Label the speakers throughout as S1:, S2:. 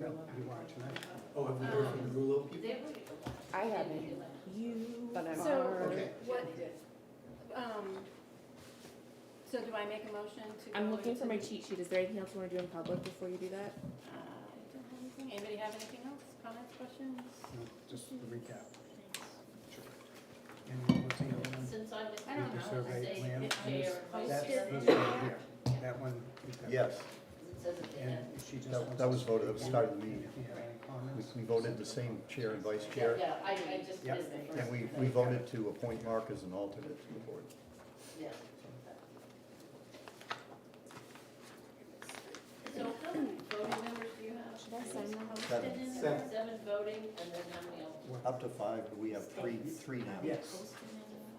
S1: No, you are tonight.
S2: Oh, have we heard from the Rulo people?
S3: They were.
S4: I haven't, but I'm
S3: So-
S4: already,
S1: Okay.
S3: What, um, so do I make a motion to?
S4: I'm
S3: go
S4: looking for
S3: into-
S4: my cheat sheet. Is there anything else you wanna do in public before you do that?
S3: Uh, I don't have anything. Anybody have anything else? Comments, questions?
S1: No, Just to recap. Sure. And what's the other one?
S5: Since I was.
S3: I don't know.
S1: survey
S5: Say
S1: plan.
S5: if chair or vice
S1: That's
S5: chair.
S1: this one here. That one. we've got.
S6: Yes,
S5: It says at the end.
S1: And she just
S6: That-
S1: wants
S6: that was
S1: us to
S6: voted at the
S1: keep
S6: start of
S1: going.
S6: the meeting.
S1: If you have any comments.
S6: we, we voted the same chair and vice
S5: Yeah,
S6: chair,
S5: yeah, I, I just
S1: Yep.
S5: missed the first.
S6: and we, we voted to appoint Mark as an alternate to the board.
S5: Yeah. So how many voting members do you have?
S4: Should I sign
S5: How
S4: them?
S5: many
S6: Seven.
S5: did in there?
S2: Seven.
S5: Seven voting and then how many else?
S1: What-
S6: Up to five, but we have three, three now.
S1: Yes,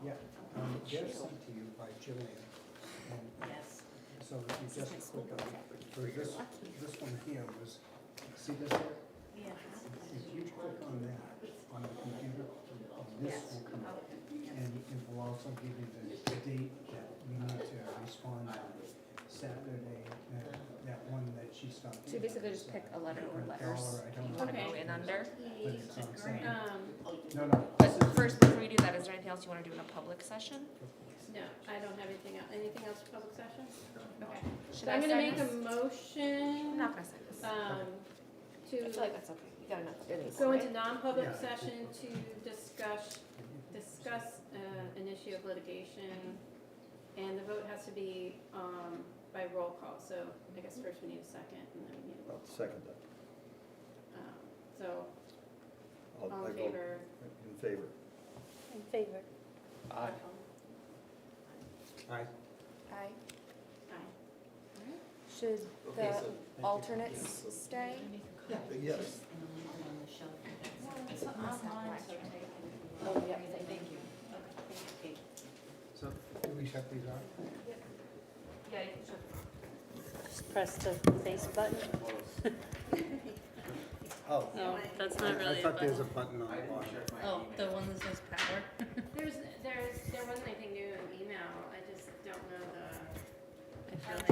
S1: yeah. Um, They're sent to you by Jillian. And
S5: Yes.
S1: so if you
S4: This is my
S1: just
S4: school
S1: click
S4: book.
S1: on, for this,
S4: Lucky.
S1: this one here was, see this here?
S5: Yeah.
S1: If you click on that on the computer, and this will come up. And it will also give you the date that we need to respond on Saturday, that- that one that she stopped.
S4: So you basically just pick a letter or letters
S1: Dollar, I
S4: that you
S1: don't
S4: wanna
S1: know.
S4: go
S3: Okay.
S4: in under.
S1: But it's on Saturday.
S3: Um,
S1: No, no.
S4: But
S1: this is-
S4: first, before you do that, is there anything else you wanna do in a public session?
S3: no, I don't have anything else. Anything else for public session? Okay.
S4: Should
S3: So I'm
S4: I
S3: gonna
S4: sign
S3: make a
S4: this?
S3: motion,
S4: I'm not gonna sign this.
S3: um,
S4: I feel like
S3: to
S4: that's okay. You got enough in these,
S3: go
S4: right?
S3: into non-public
S1: Yeah.
S3: session to discuss, discuss, uh, an issue of litigation. And the vote has to be, um, by roll call. So I guess first we need a second and then we need a roll.
S6: I'll second that.
S3: Um, So
S6: I'll-
S3: all
S6: Oh, I
S3: in
S6: vote
S3: favor?
S6: In favor.
S4: In favor.
S3: Aye.
S1: Aye.
S4: Aye.
S3: Aye.
S4: Should
S2: Okay, so
S4: alternates stay?
S6: Yes.
S5: Oh, yeah, thank you. Okay.
S1: So, do we shut these off?
S5: Yeah, you should.
S7: press the face button?
S6: Oh,
S7: No, that's
S1: I-
S7: not really
S1: I
S7: a
S1: thought there's a
S7: button.
S1: button on the bottom.
S7: Oh, the one that says power?
S3: There's, there's, there wasn't anything new in email. I just don't know the.
S7: I feel like